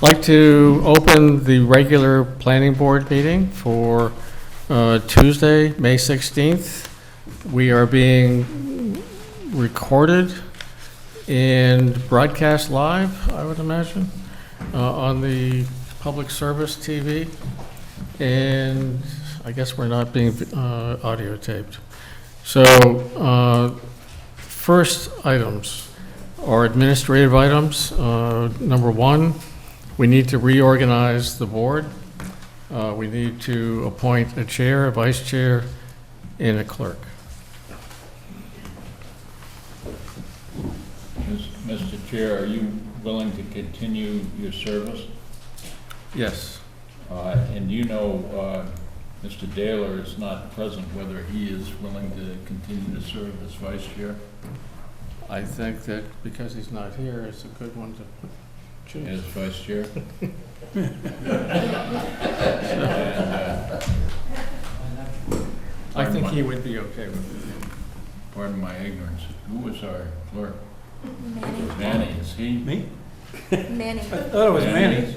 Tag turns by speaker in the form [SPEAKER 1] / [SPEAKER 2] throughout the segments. [SPEAKER 1] Like to open the regular planning board meeting for uh, Tuesday, May 16th. We are being recorded and broadcast live, I would imagine, uh, on the public service TV. And I guess we're not being uh, audio taped. So uh, first items are administrative items. Uh, Number one, we need to reorganize the board. Uh, We need to appoint a chair, a vice chair, and a clerk.
[SPEAKER 2] Mr. Chair, are you willing to continue your service?
[SPEAKER 1] Yes.
[SPEAKER 2] Uh, And you know, uh, Mr. Daler is not present, whether he is willing to continue to serve as vice chair.
[SPEAKER 1] I think that because he's not here, it's a good one to choose.
[SPEAKER 2] As vice chair? And, uh,
[SPEAKER 1] I think he would be okay with it.
[SPEAKER 2] Pardon my ignorance, who was our clerk? Manny, is he?
[SPEAKER 3] Me?
[SPEAKER 4] Manning.
[SPEAKER 3] I thought it was Manny.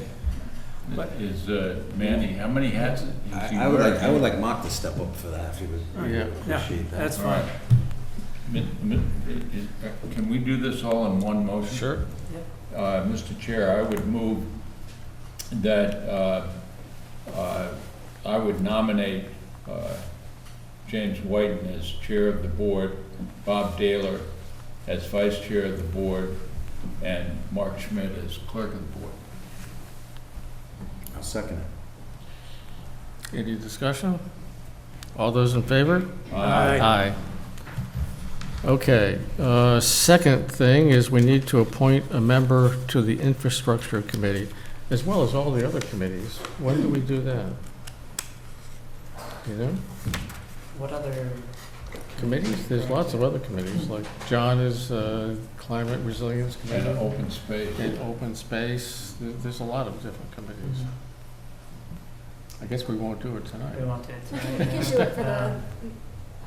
[SPEAKER 3] But-
[SPEAKER 2] Is uh, Manny, how many hats? is he
[SPEAKER 5] I I would like, I
[SPEAKER 2] wearing?
[SPEAKER 5] would like Mark to step up for that, if he would really
[SPEAKER 1] Yeah.
[SPEAKER 3] Oh, Yeah,
[SPEAKER 5] appreciate that.
[SPEAKER 3] that's
[SPEAKER 2] All
[SPEAKER 3] fine.
[SPEAKER 2] right. Mi- mi- i- i- uh, Can we do this all in one motion?
[SPEAKER 1] Sure.
[SPEAKER 2] Uh, Mr. Chair, I would move that uh, uh, I would nominate uh, James Whiten as Chair of the Board, Bob Daler as Vice Chair of the Board, and Mark Schmidt as Clerk of the Board.
[SPEAKER 5] I'll second it.
[SPEAKER 1] Any discussion? All those in favor?
[SPEAKER 3] Aye.
[SPEAKER 1] Aye. Okay, uh, second thing is we need to appoint a member to the infrastructure committee, as well as all the other committees. When do we do that? You know,
[SPEAKER 6] What other?
[SPEAKER 1] committees, there's lots of other committees, like John is uh, Climate Resilience
[SPEAKER 2] And
[SPEAKER 1] Committee,
[SPEAKER 2] open space.
[SPEAKER 1] and Open Space, There- there's a lot of different committees. I guess we won't do it tonight.
[SPEAKER 6] We want to.
[SPEAKER 4] We can do it for the,
[SPEAKER 6] Uh,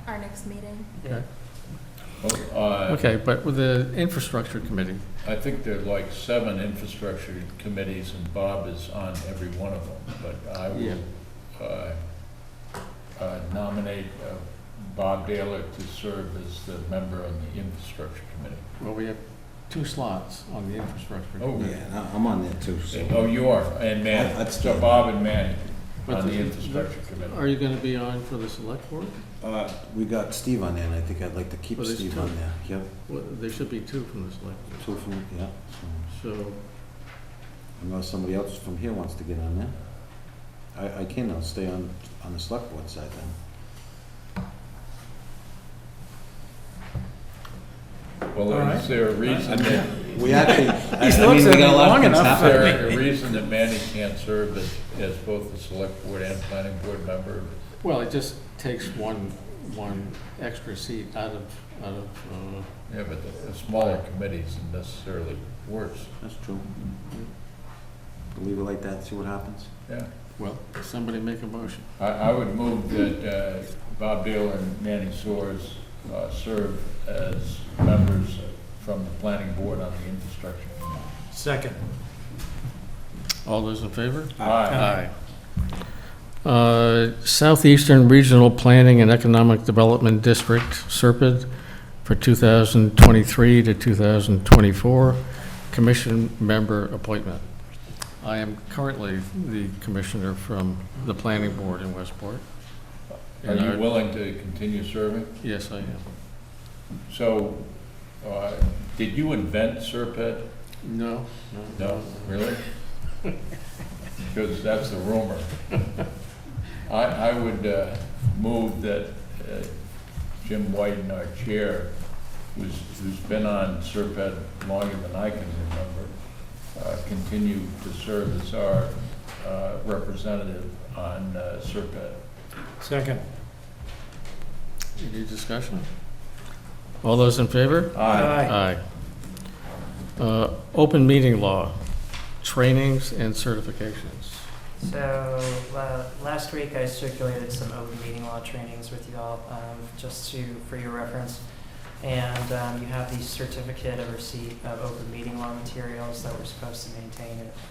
[SPEAKER 4] our next meeting.
[SPEAKER 6] Yeah.
[SPEAKER 2] Oh, uh,
[SPEAKER 1] Okay, but with the infrastructure committee,
[SPEAKER 2] I think there are like seven infrastructure committees, and Bob is on every one of them, but I
[SPEAKER 1] Yeah.
[SPEAKER 2] will uh, uh, nominate uh, Bob Daler to serve as the member on the infrastructure committee.
[SPEAKER 1] well, we have two slots on the infrastructure.
[SPEAKER 2] Oh,
[SPEAKER 5] Yeah, and I- I'm on there too, so.
[SPEAKER 2] Oh, you are, and
[SPEAKER 5] I-
[SPEAKER 2] Manny,
[SPEAKER 5] I'd
[SPEAKER 2] so
[SPEAKER 5] stay.
[SPEAKER 2] Bob and Manny
[SPEAKER 1] But
[SPEAKER 2] on Uh, the
[SPEAKER 1] the-
[SPEAKER 2] infrastructure committee.
[SPEAKER 1] Are you going to be on for the select board?
[SPEAKER 5] Uh, We got Steve on there, and I think I'd like to
[SPEAKER 3] Oh,
[SPEAKER 5] keep
[SPEAKER 1] Well, there's
[SPEAKER 5] Steve
[SPEAKER 1] two.
[SPEAKER 5] on there. Yep,
[SPEAKER 1] Well, there should be two from the select board,
[SPEAKER 5] two from, yeah. so,
[SPEAKER 1] so,
[SPEAKER 5] Unless somebody else from here wants to get on there. I, I can, I'll stay on, on the select board side then.
[SPEAKER 2] Well, is there a reason that,
[SPEAKER 5] We actually, I
[SPEAKER 3] He's
[SPEAKER 5] I
[SPEAKER 3] looked
[SPEAKER 5] mean, we
[SPEAKER 3] at
[SPEAKER 5] got
[SPEAKER 3] me
[SPEAKER 5] a lot
[SPEAKER 3] long
[SPEAKER 5] of things
[SPEAKER 3] enough.
[SPEAKER 2] is
[SPEAKER 5] happening.
[SPEAKER 2] there a reason that Manny can't serve as, as both the select board and planning board member?
[SPEAKER 1] well, it just takes one, one extra seat out of, out of, uh,
[SPEAKER 2] Yeah, but the- the smaller committee isn't necessarily worse.
[SPEAKER 5] That's true. We'll Leave it like that, see what happens.
[SPEAKER 2] Yeah,
[SPEAKER 1] well, somebody make a motion.
[SPEAKER 2] I, I would move that uh, Bob Dale and Manny Soers uh, serve as members from the planning board on the infrastructure.
[SPEAKER 3] Second.
[SPEAKER 1] All those in favor? Ah.
[SPEAKER 2] Aye.
[SPEAKER 1] Uh, Southeastern Regional Planning and Economic Development District, SERPID, for 2023 to 2024, commission member appointment. I am currently the commissioner from the planning board in Westport.
[SPEAKER 2] Are
[SPEAKER 1] And I-
[SPEAKER 2] you willing to continue serving?
[SPEAKER 1] Yes, I am.
[SPEAKER 2] So, uh, did you invent Serpent?
[SPEAKER 1] No?
[SPEAKER 2] No, really? Because that's the rumor. I, I would uh, move that uh, Jim Whiten, our chair, who's, who's been on Serpent longer than I can remember, uh, continue to serve as our uh, representative on uh, Serpent.
[SPEAKER 3] Second.
[SPEAKER 1] Any discussion? All those in favor? Aye. Uh, Open meeting law, trainings and certifications.
[SPEAKER 6] So, uh, last week I circulated some open meeting law trainings with you all, um, just to, for your reference. And, um, you have the certificate of receipt of open meeting law materials that we're supposed to maintain at